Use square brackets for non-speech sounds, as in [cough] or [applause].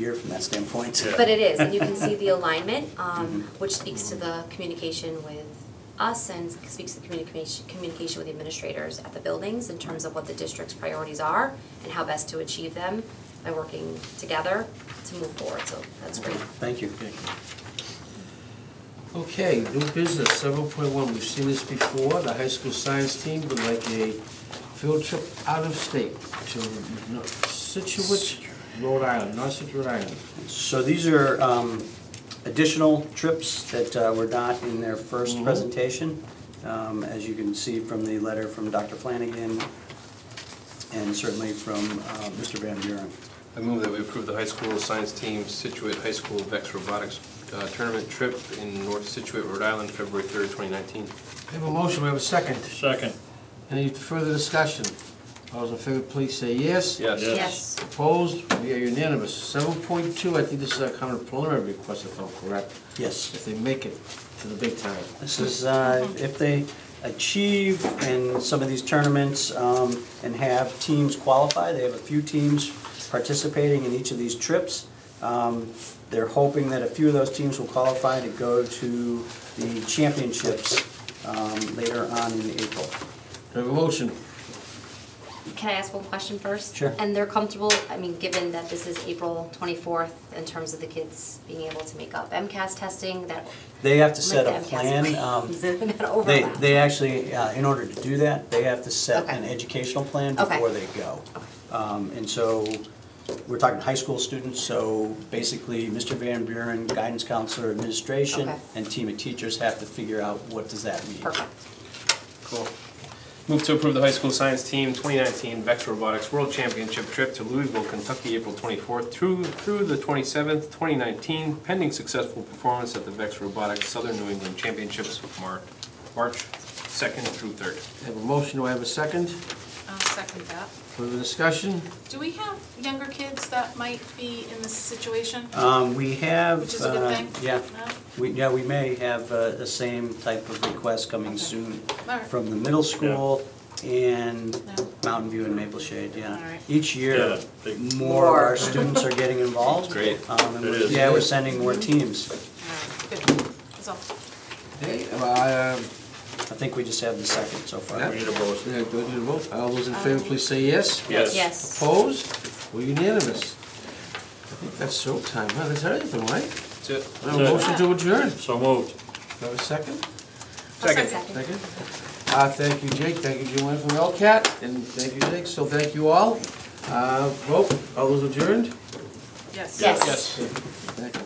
year from that standpoint. Yeah. But it is, and you can [laughs] see the alignment, Mm-hmm. um, which speaks to the communication with us and speaks to the communication, communication with the administrators at the buildings in terms of what the district's priorities are and how best to achieve them by working together to move forward, so that's great. Thank you. Okay, new business, seven point one, we've seen this before, the high school science team would like a field trip out of state to Nor- Situate, Rhode Island, North Rhode Island. So these are um, additional trips that uh, were not in their first Mhm. presentation, um, as you can see from the letter from Dr. Flanagan and certainly from uh, Mr. Van Buren. I move that we approve the high school science team Situate High School VEX Robotics uh, Tournament Trip in North Situate, Rhode Island, February 3rd, 2019. We have a motion, we have a second. Second. Any further discussion? All those in favor, please say yes. Yes. Yes. Yes, Opposed, we are unanimous. Seven point two, I think this is a kind of preliminary request, if I'm correct, Yes, if they make it to the big time. this is, uh, if they achieve in some of these tournaments um, and have teams qualify, they have a few teams participating in each of these trips. Um, They're hoping that a few of those teams will qualify to go to the championships um, later on in April. We have a motion. can I ask one question first? Sure. And they're comfortable, I mean, given that this is April twenty-fourth, in terms of the kids being able to make up MCAS testing, that, They have to like set the a [laughs] plan. um, MCAS, that They, overlap. they actually, uh, in order to do that, they have to set Okay. an educational plan Okay. before they go. Um, And so, we're talking high school students, so basically, Mr. Van Buren, guidance counselor, administration, Okay. and team of teachers have to figure out what does that mean. Perfect. Cool. Move to approve the high school science team 2019 VEX Robotics World Championship Trip to Louisville, Kentucky, April 24th through through the 27th, 2019, pending successful performance at the VEX Robotics Southern New England Championships, Mar- March 2nd through 3rd. We have a motion, do I have a second? I'll second that. Further discussion? Do we have younger kids that might be in this situation? Um, We have. Which is a good uh, thing. Yeah. No? We, yeah, we may have uh, the same type of request coming soon Alright. from the middle school and No. Mountain View and Maple Shade, yeah. Alright. Each year, Yeah, they- more of our students are getting involved. Great. Um, and It we're- is. Yeah, we're sending more teams. Alright, Good, that's all. Okay, uh, I think we just have the second so far. Yeah. We need a vote. Yeah, go to the vote. All those in favor, please say yes. Yes. Yes. Opposed? We're unanimous. I think that's showtime, huh? That's everything, right? That's it. We have a motion to adjourn. So moved. We have a second? I'll Second. Second? Uh, thank you, Jake. Thank you, Joanne from Elcat, and thank you, Jake. So thank you all. Uh, vote, all those adjourned? Yes. Yes. Thank you.